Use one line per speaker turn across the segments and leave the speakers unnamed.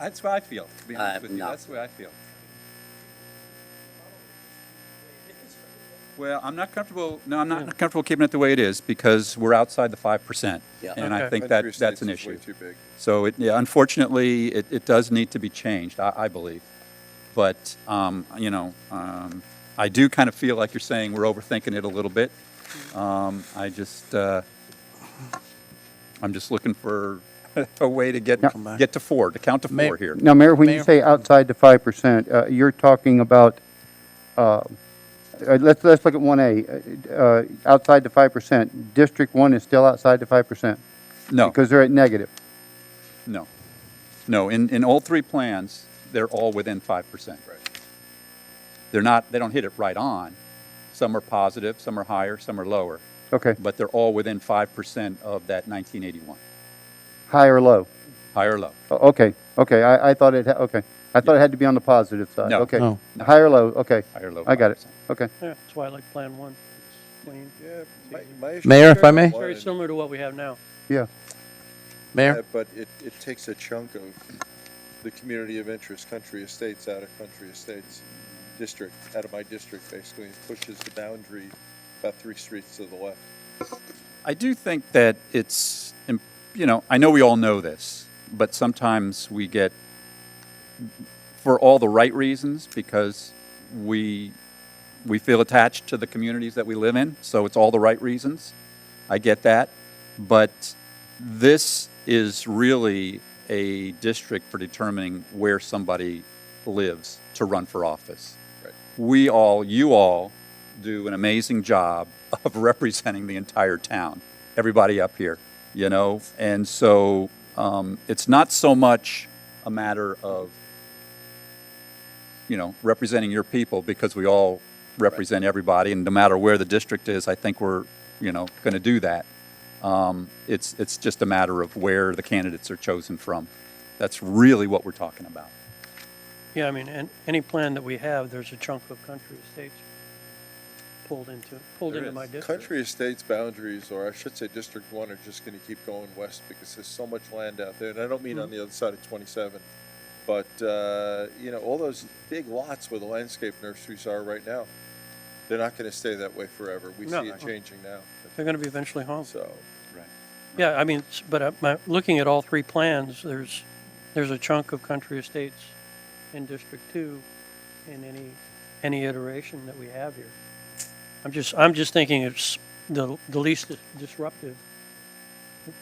That's what I feel, to be honest
Uh,
with you.
no.
That's what I feel. Well, I'm not comfortable, no, I'm not comfortable keeping it the way it is because we're outside the 5%.
Yeah.
And I
Okay.
think that, that's an issue. So it, yeah, unfortunately, it, it does need to be changed, I, I believe. But, um, you know, um, I do kind of feel like you're saying we're overthinking it a little bit. Um, I just, uh, I'm just looking for a way to get,
Come back.
get to four, to count to
May-
four here.
Now, Mayor, when you
Mayor.
say outside the five percent, uh, you're talking about, uh, uh, let's, let's look at one A, uh, outside the five percent. District one is still outside the five percent
No,
because they're at negative.
no. No, in, in all three plans, they're all within five percent. Right. They're not, they don't hit it right on. Some are positive, some are higher, some are lower,
Okay,
but they're all within five percent of that nineteen eighty-one.
high or low?
High or low?
O- Okay, okay, I, I thought it, ha- okay. I thought it had to be on the positive side.
No.
Okay,
No.
High or low, okay.
High or low?
I got it,
5%.
okay.
Yeah, that's why I like Plan One. It's clean.
Yeah, my- my issue
Mayor,
is
if I may?
one,
Very similar to what we have now.
Yeah,
Mayor?
uh, But it, it takes a chunk of the community of interest, country estates, out of country estates, district, out of my district, basically, and pushes the boundary about three streets to the left.
I do think that it's, im- you know, I know we all know this, but sometimes we get, for all the right reasons, because we, we feel attached to the communities that we live in, so it's all the right reasons. I get that. But this is really a district for determining where somebody lives to run for office. we all, you all, do an amazing job of representing the entire town, everybody up here, you know? And so um, it's not so much a matter of, you know, representing your people because we all represent everybody. And no matter where the district is, I think we're, you know, going to do that. Um, it's, it's just a matter of where the candidates are chosen from. That's really what we're talking about.
Yeah, I mean, and any plan that we have, there's a chunk of country estates pulled into, pulled
There
into
is.
my district.
Country estates boundaries, or I should say District One, are just gonna keep going west because there's so much land out there, and I don't mean
Mm-hmm.
on the other side of twenty-seven. But, uh, you know, all those big lots where the landscape nurseries are right now, they're not gonna stay that way forever. We
No.
see it changing now.
They're gonna be eventually home.
So,
Yeah, I mean, s- but uh, my, looking at all three plans, there's, there's a chunk of country estates in District Two in any, any iteration that we have here. I'm just, I'm just thinking it's the, the least dis- disruptive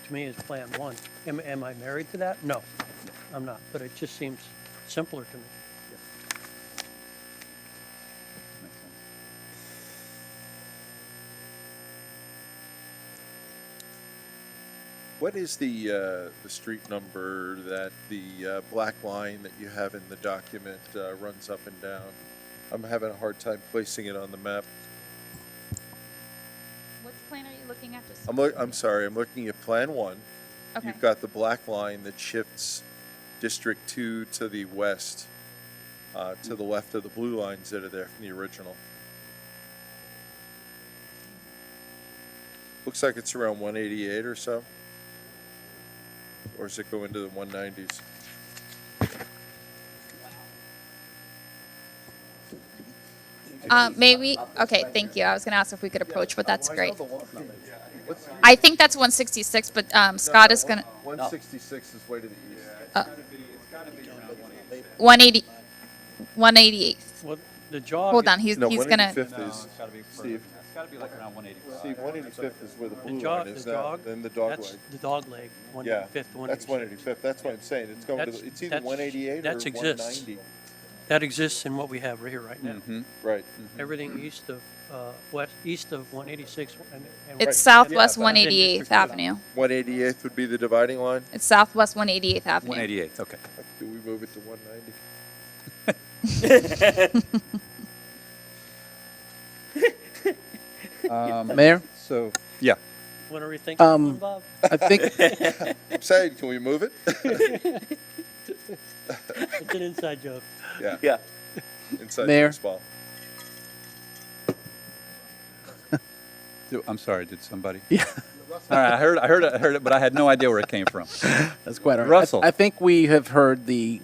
to me is Plan One. Am, am I married to that? No, I'm not, but it just seems simpler to me.
What is the, uh, the street number that the, uh, black line that you have in the document, uh, runs up and down? I'm having a hard time placing it on the map.
Which plan are you looking at? Just-
I'm look, I'm sorry, I'm looking at Plan One.
Okay.
You've got the black line that shifts District Two to the west, uh, to the left of the blue lines that are there from the original. Looks like it's around one eighty-eight or so. Or does it go into the one nineties?
Uh, may we, okay, thank you. I was gonna ask if we could approach, but that's great. I think that's one sixty-six, but, um, Scott is gonna,
One sixty-six is way to the east.
one eighty, one eighty-eighth.
Well, the jog.
Hold
is-
on, he's,
No,
he's
one
gonna,
eighty-fifth is,
gotta be
Steve.
It's gotta be like around one eighty.
see, one eighty-fifth is where the
The
blue line
jog,
is
the
now,
jog.
then the dog
That's
leg.
the dog leg, one
Yeah,
fifth, one.
that's one eighty-fifth, that's what I'm saying, it's going to,
That's-
the- it's either
that's-
one eighty-eight or
that's
one
exists. Hmm.
ninety. Hmm?
That exists in what we have right here, right
Mm-hmm.
now.
Right.
Everything east of, uh, west, east of one eighty-six and. and
it's
right.
Southwest
Yeah,
one eighty-eighth Avenue.
One eighty-eighth would be the dividing line,
It's Southwest one eighty-eighth Avenue.
One eighty-eight, okay.
do we move it to one ninety?
Mayor?
So, yeah.
What are we
Um,
thinking, Bob?
I think,
I'm saying, can we move it?
It's an inside joke.
Yeah,
Yeah.
inside
Mayor?
baseball.
Do- I'm sorry, did somebody? All right, I heard, I heard, I heard it, but I had no idea where it came from.
That's quite all right. I-
Russell.
I think we have heard the,